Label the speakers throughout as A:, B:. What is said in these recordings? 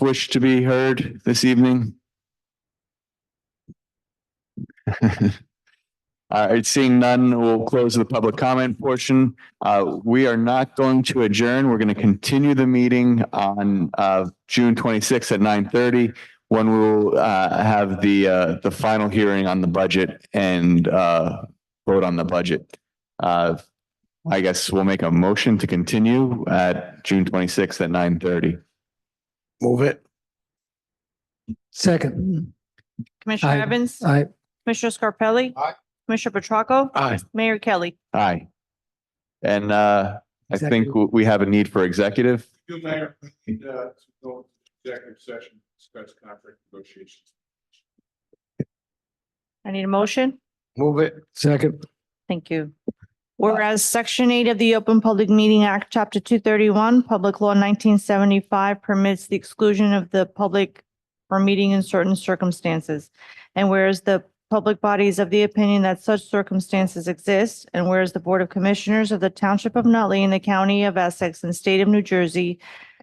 A: wish to be heard this evening? All right, seeing none, we'll close the public comment portion. Uh, we are not going to adjourn. We're going to continue the meeting on, uh, June twenty-sixth at nine thirty when we'll, uh, have the, uh, the final hearing on the budget and, uh, vote on the budget. Uh, I guess we'll make a motion to continue at June twenty-sixth at nine thirty.
B: Move it.
C: Second,
D: Commissioner
C: Aye.
D: Evans,
C: I,
D: Commissioner Scarpelli.
B: Aye.
D: Commissioner Petracca,
B: Aye.
D: Mayor Kelly.
A: Aye. And, uh, I think
C: Executive.
A: w- we have a need for executive.
E: Good mayor, I need, uh, to go into executive session, discuss contract negotiations.
D: I need a motion.
B: Move it.
C: second,
D: Thank you. Whereas Section 8 of the Open Public Meeting Act, Chapter 231, Public Law 1975 permits the exclusion of the public from meeting in certain circumstances. And whereas the public body is of the opinion that such circumstances exist, and whereas the Board of Commissioners of the Township of Nutley in the County of Essex and State of New Jersey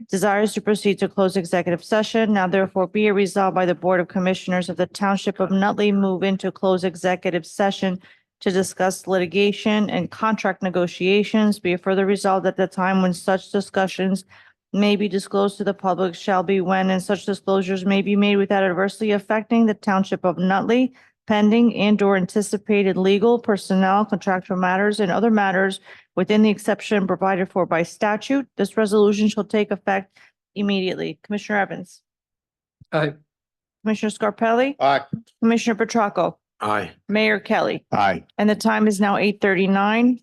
D: desires to proceed to close executive session, now therefore be it resolved by the Board of Commissioners of the Township of Nutley move into close executive session to discuss litigation and contract negotiations be it further resolved at the time when such discussions may be disclosed to the public shall be when and such disclosures may be made without adversely affecting the township of Nutley pending and or anticipated legal, personnel, contractual matters and other matters within the exception provided for by statute. This resolution shall take effect immediately. Commissioner Evans?
C: Aye.
D: Commissioner Scarpelli?
B: Aye.
D: Commissioner Petracca?
B: Aye.
D: Mayor Kelly?
A: Aye.
D: And the time is now eight thirty-nine.